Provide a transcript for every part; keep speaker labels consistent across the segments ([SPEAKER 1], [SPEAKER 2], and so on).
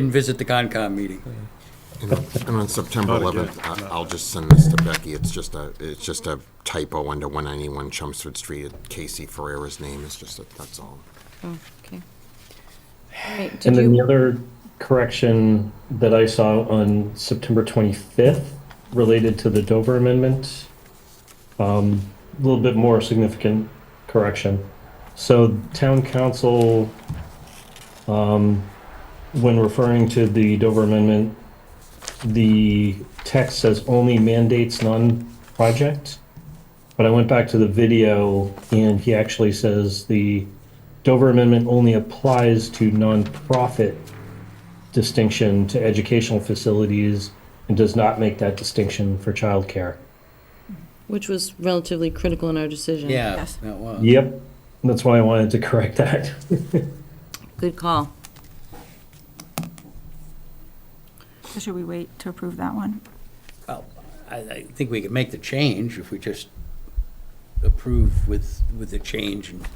[SPEAKER 1] Didn't visit the Concom meeting.
[SPEAKER 2] And on September
[SPEAKER 3] Not again.
[SPEAKER 2] 11th, I- I'll just send this to Becky. It's just a, it's just a typo under 191 Chelmsford Street. Casey Ferrera's name is just, a- that's all.
[SPEAKER 4] Oh, okay. All right, did
[SPEAKER 5] And then the
[SPEAKER 4] you,
[SPEAKER 5] other correction that I saw on September 25th related to the Dover Amendment, um, a little bit more significant correction. So town council, um, when referring to the Dover Amendment, the text says only mandates non-project. But I went back to the video and he actually says the Dover Amendment only applies to nonprofit distinction to educational facilities and does not make that distinction for childcare.
[SPEAKER 4] which was relatively critical in our decision.
[SPEAKER 1] Yeah,
[SPEAKER 6] Yes.
[SPEAKER 1] that was.
[SPEAKER 5] Yep, that's why I wanted to correct that.
[SPEAKER 4] Good call.
[SPEAKER 6] So Should we wait to approve that one?
[SPEAKER 1] Well, I, I think we could make the change if we just approve with, with the change and.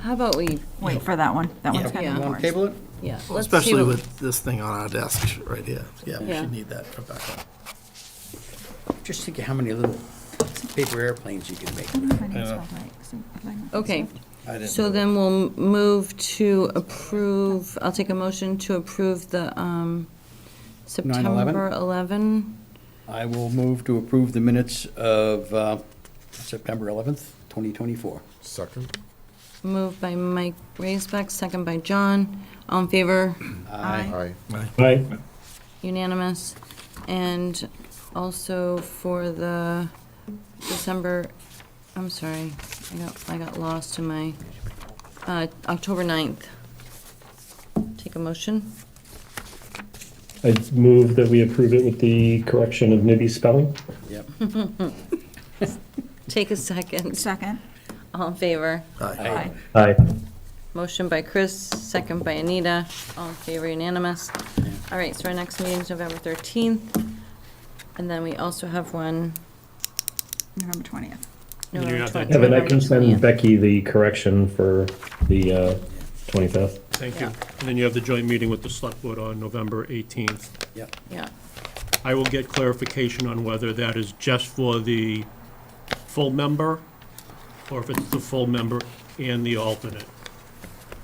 [SPEAKER 4] How about we,
[SPEAKER 6] Wait for that one. That one's kind
[SPEAKER 4] Yeah.
[SPEAKER 6] of
[SPEAKER 1] Want to
[SPEAKER 6] important.
[SPEAKER 1] table it?
[SPEAKER 4] yeah, let's see.
[SPEAKER 3] Especially
[SPEAKER 4] what-
[SPEAKER 3] with this thing on our desk right here. Yeah, we
[SPEAKER 4] Yeah.
[SPEAKER 3] should need that for backup.
[SPEAKER 1] Just think of how many little paper airplanes you could make.
[SPEAKER 4] Okay, so then we'll move to approve, I'll take a motion to approve the um,
[SPEAKER 1] 9/11?
[SPEAKER 4] September 11.
[SPEAKER 1] I will move to approve the minutes of uh, September 11th, 2024.
[SPEAKER 2] Second?
[SPEAKER 4] Moved by Mike Raisbeck, second by John. All in favor?
[SPEAKER 6] Aye.
[SPEAKER 2] Aye.
[SPEAKER 5] Right?
[SPEAKER 4] Unanimous. And also for the December, I'm sorry, I got, I got lost in my, uh, October 9th. Take a motion.
[SPEAKER 5] I move that we approve it with the correction of Nibby's spelling.
[SPEAKER 1] Yep.
[SPEAKER 4] Take a second.
[SPEAKER 6] Second?
[SPEAKER 4] All in favor?
[SPEAKER 3] Aye.
[SPEAKER 1] Aye.
[SPEAKER 5] Aye.
[SPEAKER 4] Motion by Chris, second by Anita. All in favor, unanimous. All right, so our next meeting's November 13th. And then we also have one
[SPEAKER 6] November 20th.
[SPEAKER 4] November 20th.
[SPEAKER 5] Kevin, I can
[SPEAKER 4] November
[SPEAKER 5] send
[SPEAKER 4] 20th.
[SPEAKER 5] Becky the correction for the uh, 25th.
[SPEAKER 7] Thank you. And then you have the joint meeting with the select board on November 18th.
[SPEAKER 1] Yep.
[SPEAKER 4] Yeah,
[SPEAKER 7] I will get clarification on whether that is just for the full member, or if it's the full member and the alternate.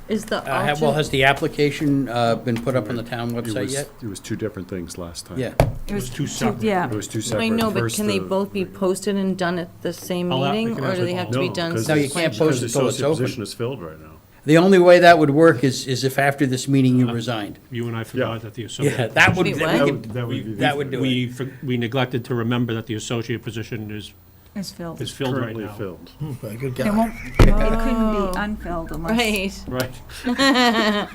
[SPEAKER 4] is the
[SPEAKER 1] Uh, ha- Well,
[SPEAKER 4] alternate,
[SPEAKER 1] has the application uh, been put up on the town
[SPEAKER 8] It
[SPEAKER 1] website
[SPEAKER 8] was,
[SPEAKER 1] yet?
[SPEAKER 8] it was two different things last time.
[SPEAKER 1] Yeah.
[SPEAKER 7] It was two separate.
[SPEAKER 6] Yeah,
[SPEAKER 8] It was two separate.
[SPEAKER 4] I know, but
[SPEAKER 8] First
[SPEAKER 4] can they
[SPEAKER 8] the-
[SPEAKER 4] both be posted and done at the same
[SPEAKER 7] I'll have-
[SPEAKER 4] meeting,
[SPEAKER 7] they can
[SPEAKER 4] or
[SPEAKER 7] have
[SPEAKER 4] do
[SPEAKER 7] it
[SPEAKER 4] they have
[SPEAKER 7] all.
[SPEAKER 4] to be
[SPEAKER 8] No,
[SPEAKER 4] done?
[SPEAKER 8] because
[SPEAKER 1] No, you
[SPEAKER 8] it's-
[SPEAKER 1] can't
[SPEAKER 8] because
[SPEAKER 1] post it till it's
[SPEAKER 8] The associate
[SPEAKER 1] open.
[SPEAKER 8] position is filled right now.
[SPEAKER 1] The only way that would work is, is if after this meeting you
[SPEAKER 8] Uh-huh.
[SPEAKER 1] resigned.
[SPEAKER 7] You and I
[SPEAKER 8] Yeah.
[SPEAKER 7] forgot that the associate.
[SPEAKER 1] Yeah, that would,
[SPEAKER 4] Wait,
[SPEAKER 1] that
[SPEAKER 4] what?
[SPEAKER 1] we
[SPEAKER 8] That
[SPEAKER 1] could-
[SPEAKER 8] would- that would be.
[SPEAKER 1] that would do it.
[SPEAKER 7] We, for- we neglected to remember that the associate position is,
[SPEAKER 6] it's filled.
[SPEAKER 7] is
[SPEAKER 6] It
[SPEAKER 7] filled right
[SPEAKER 8] Currently
[SPEAKER 7] now.
[SPEAKER 8] filled.
[SPEAKER 3] Aye. Oh, Good
[SPEAKER 6] won't,
[SPEAKER 3] guy.
[SPEAKER 6] it couldn't be unfilled unless,
[SPEAKER 4] Oh. Right,
[SPEAKER 7] Right.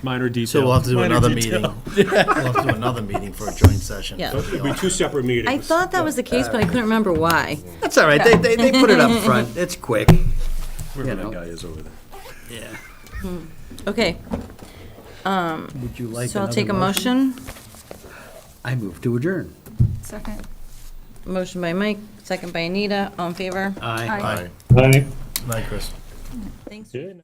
[SPEAKER 7] Minor detail.
[SPEAKER 3] So we'll have to do
[SPEAKER 7] Minor
[SPEAKER 3] another
[SPEAKER 7] detail.
[SPEAKER 3] meeting. We'll have to do another meeting for a joint session.
[SPEAKER 4] Yeah.
[SPEAKER 7] It'll be two separate meetings.
[SPEAKER 4] I thought that was the case, but I couldn't remember why.
[SPEAKER 1] That's all right, they, they, they put it up front, it's quick.
[SPEAKER 8] Wherever
[SPEAKER 1] know.
[SPEAKER 8] that guy is over there.
[SPEAKER 4] Okay, Um,
[SPEAKER 1] Would you like
[SPEAKER 4] so I'll
[SPEAKER 1] another
[SPEAKER 4] take a motion.
[SPEAKER 1] I move to adjourn.
[SPEAKER 6] second?
[SPEAKER 4] Motion by Mike, second by Anita, all in favor?
[SPEAKER 1] Aye.
[SPEAKER 6] Aye.
[SPEAKER 2] Aye.
[SPEAKER 5] Aye.
[SPEAKER 3] Night, Chris.
[SPEAKER 4] Thanks.
[SPEAKER 5] Good.